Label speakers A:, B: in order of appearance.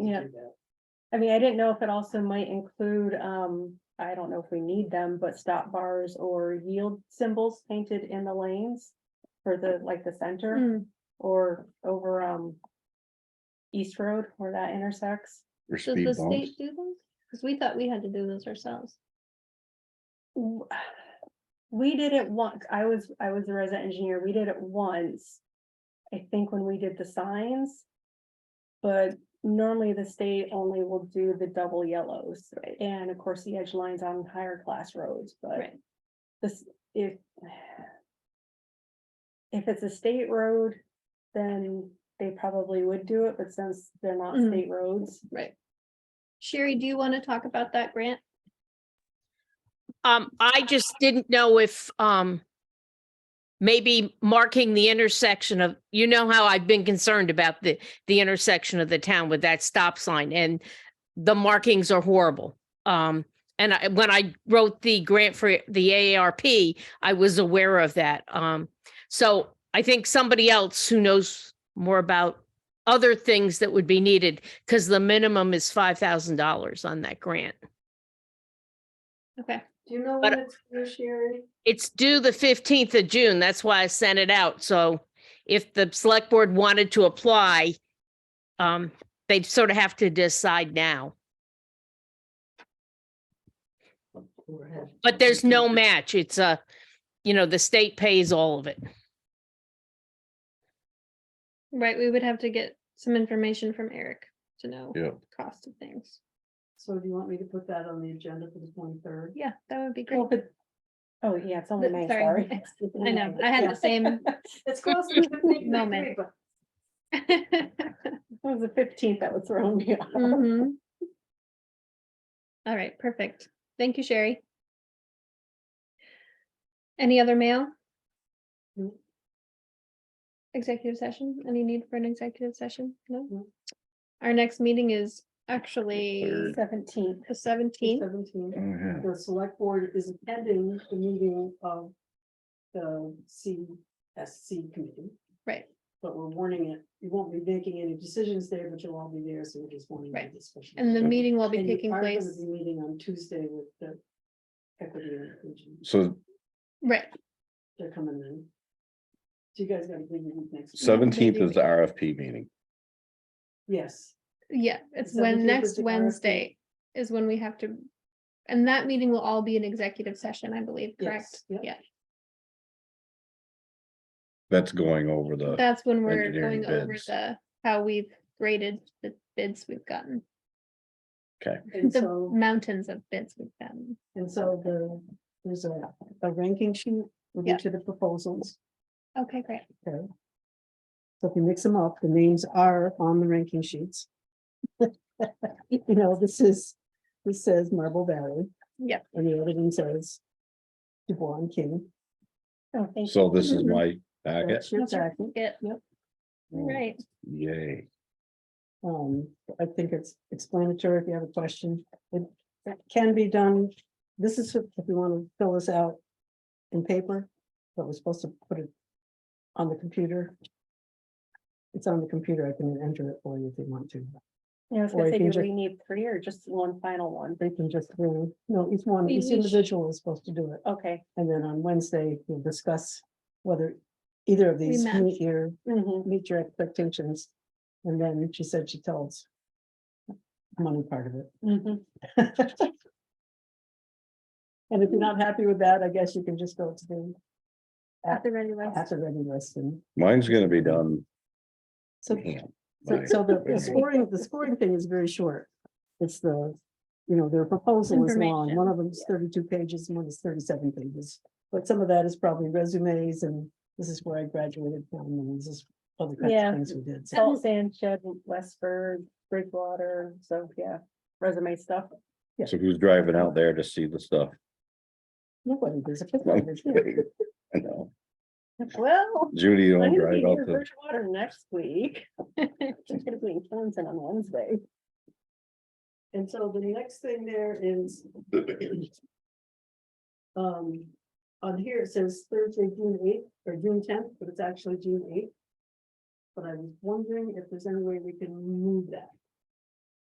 A: Yeah. I mean, I didn't know if it also might include, um, I don't know if we need them, but stop bars or yield symbols painted in the lanes. For the, like the
B: Hmm.
A: center or over, um. East Road where that intersects.
C: Or
B: Does
C: speed
B: the
C: bumps.
B: state do those? Cause we thought we had to do those ourselves.
A: W- We did it once. I was, I was a resident engineer. We did it once. I think when we did the signs. But normally the state only will do the double yellows
B: Right.
A: and of course the edge lines on higher class roads, but.
B: Right.
A: This, if. If it's a state road, then they probably would do it, but since they're not
B: Mhm.
A: state roads.
B: Right. Sherry, do you want to talk about that grant?
D: Um, I just didn't know if, um, maybe marking the intersection of, you know how I've been concerned about the, the intersection of the town with that stop sign and the markings are horrible. Um, and I, when I wrote the grant for the AARP, I was aware of that. Um, so I think somebody else who knows more about other things that would be needed, because the minimum is five thousand dollars on that grant.
B: Okay,
E: Do you know
D: But-
E: when it's due, Sherry?
D: It's due the fifteenth of June. That's why I sent it out. So if the select board wanted to apply, um, they'd sort of have to decide now, but there's no match. It's a, you know, the state pays all of it.
B: right, we would have to get some information from Eric to know
C: Yeah,
B: cost of things.
E: So do you want me to put that on the agenda for the twenty-third?
B: Yeah, that would be great.
A: Well, but- Oh, yeah, it's only May,
B: Th- sorry.
A: sorry.
B: I know, I had the same.
E: It's close to the
B: Moment.
E: 23rd, but
A: It was the fifteenth that was thrown me off.
B: Mhm.
E: Mm-hmm.
B: All right, perfect. Thank you, Sherry. Any other mail?
E: No.
B: Executive session? Any need for an executive session? No?
E: No.
B: Our next meeting is actually
C: third.
A: Seventeenth.
B: the
E: the
B: seventeenth.
E: 17th.
C: oh, yeah.
E: The select board is attending the meeting of the CSC committee,
B: Right,
E: but we're warning it. You won't be making any decisions there, but you'll all be there, so we're just warning you
B: Right.
E: this special.
B: and the
C: Okay.
B: meeting will be
E: And you
B: taking
E: are gonna
B: place,
E: be Meeting on Tuesday with the equity and inclusion.
C: So
B: right,
E: They're coming in. So you guys gotta bring them next. week.
C: seventeenth
B: maybe
C: is the RFP meeting.
E: Yes.
B: yeah, it's
E: The
B: when
E: 17th is
B: next
E: the RFP.
B: Wednesday is when we have to. And that meeting will all be an executive session, I believe, correct?
E: Yes, yep.
B: Yeah,
C: That's going over the,
B: That's when we're
C: engineering
B: going over
C: bids.
B: the, how we've graded the bids we've gotten,
E: And
B: the
E: so.
B: mountains of bids we've gotten.
E: And so the, there's a, a ranking sheet with
B: Yeah.
E: each of the proposals.
B: Okay, great.
E: Okay. So if you mix them up, the names are on the ranking sheets. You know, this is, this says Marble Valley.
B: Yep.
E: And the other one says Dubois and King.
A: Oh, thank you.
C: so this is my packet.
E: That's your
B: That's our
E: packet.
B: packet.
E: Yep.
C: Oh,
B: Right,
C: Yay.
E: Um, I think it's explanatory if you have a question. It can be done. This is if if you want to fill this out in paper, but we're supposed to put it on the computer. It's on the computer. I can enter it for you if you want to.
A: Yeah, I was
E: Or
A: gonna
E: you
A: say,
E: can
A: do
E: ju-
A: we need three or just one final one?
E: They can just, really- no, each one,
B: We-
E: each
B: we should-
E: individual is supposed to do it.
A: Okay.
E: And then on Wednesday, we'll discuss whether either of these
B: match.
E: meet your,
B: Mm-hmm,
A: Mhm.
E: meet your expectations. And then she said she tells money part of it.
B: mm-hmm.
A: Mhm.
E: And if you're not happy with that, I guess you can just go to the,
B: at the ready list.
E: at the ready list and.
C: Mine's gonna be done.
E: So,
C: hand
E: so
C: by-
E: so the
C: by
E: the scoring, the scoring thing is very short. It's the, you know, their proposal is long. One of them is thirty-two pages and one is thirty-seven pages. But some of that is probably resumes and this is where I graduated from and this is other kinds
A: Yeah.
E: of things we did. So,
A: Salt Sand Shed, Westford, Bridgewater, so yeah, resume stuff.
C: So who's driving out there to see the stuff?
E: nobody, there's a fifth grader here.
C: I know.
A: Well.
C: Judy
A: I'm
C: don't
A: gonna be here
C: drive out
A: in
C: to,
A: Bridgewater next week. She's gonna be in Clemson on Wednesday.
E: And so the next thing there is. Um, on here it says Thursday, June eighth or June tenth, but it's actually June eighth. But I was wondering if there's any way we can move that.